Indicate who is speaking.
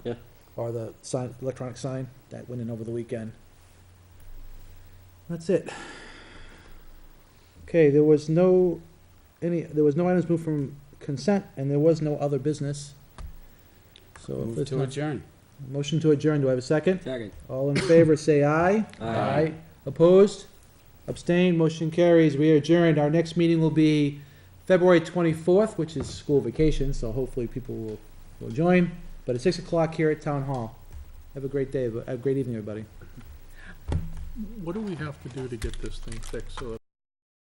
Speaker 1: or the sign, electronic sign that went in over the weekend. That's it. Okay, there was no, any, there was no items moved from consent, and there was no other business. So if
Speaker 2: Move
Speaker 1: there's
Speaker 2: to
Speaker 1: no,
Speaker 2: adjourn.
Speaker 1: motion to adjourn, do I have a second?
Speaker 3: Second.
Speaker 1: All in favor, say aye.
Speaker 2: Aye.
Speaker 1: Opposed? Abstained, motion carries, we are adjourned, our next meeting will be February twenty-fourth, which is school vacation, so hopefully people will, will join, but at six o'clock here at Town Hall. Have a great day, have a great evening, everybody.
Speaker 4: What do we have to do to get this thing fixed so that